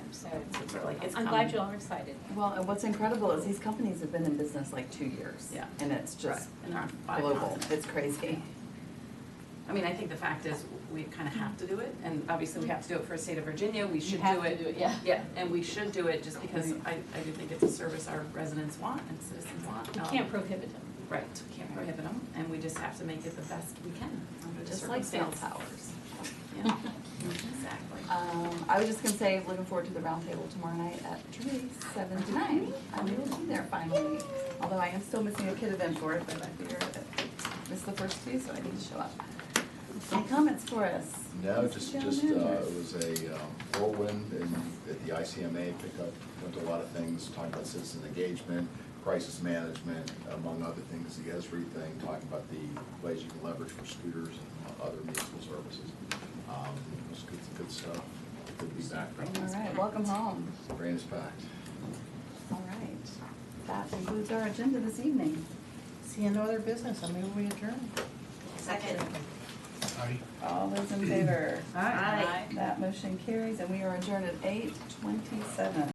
so it's- it's really, it's I'm coming. glad you all are excited. Well, and what's incredible is these companies have been in business like two years. Yeah. And it's just Right. And they're on five global, continents. it's crazy. I mean, I think the fact is, we kind of have to do it, and obviously we have to do it for the state of Virginia, we should do have it. to do it, yeah. Yeah, and we should do it just because I, I do think it's a service our residents want and citizens want. We Um, can't prohibit them. Right, we can't prohibit them, and we just have to make it the best we can under the Just like cell circumstance. towers. Yeah, exactly. Um, I was just gonna say, looking forward to the roundtable tomorrow night at Trinity's seven to nine. I will be there finally, although I am still missing a kid event for it, but I figure I missed the first two, so I need to show up. Any comments for us? No, Mr. just, General just, uh, Manager? it was a um, whirlwind and at the ICMA pickup, went to a lot of things, talking about citizen engagement, crisis management, among other things, the ESRI thing, talking about the ways you can leverage for scooters and other municipal services. Um, It was good, good stuff. Good to be back. All right, welcome home. Brain is packed. All right, that concludes our agenda this evening. See, no other business, I move we adjourn. Second. All those in favor? Aye. Aye. That motion carries, and we are adjourned at eight twenty-seven.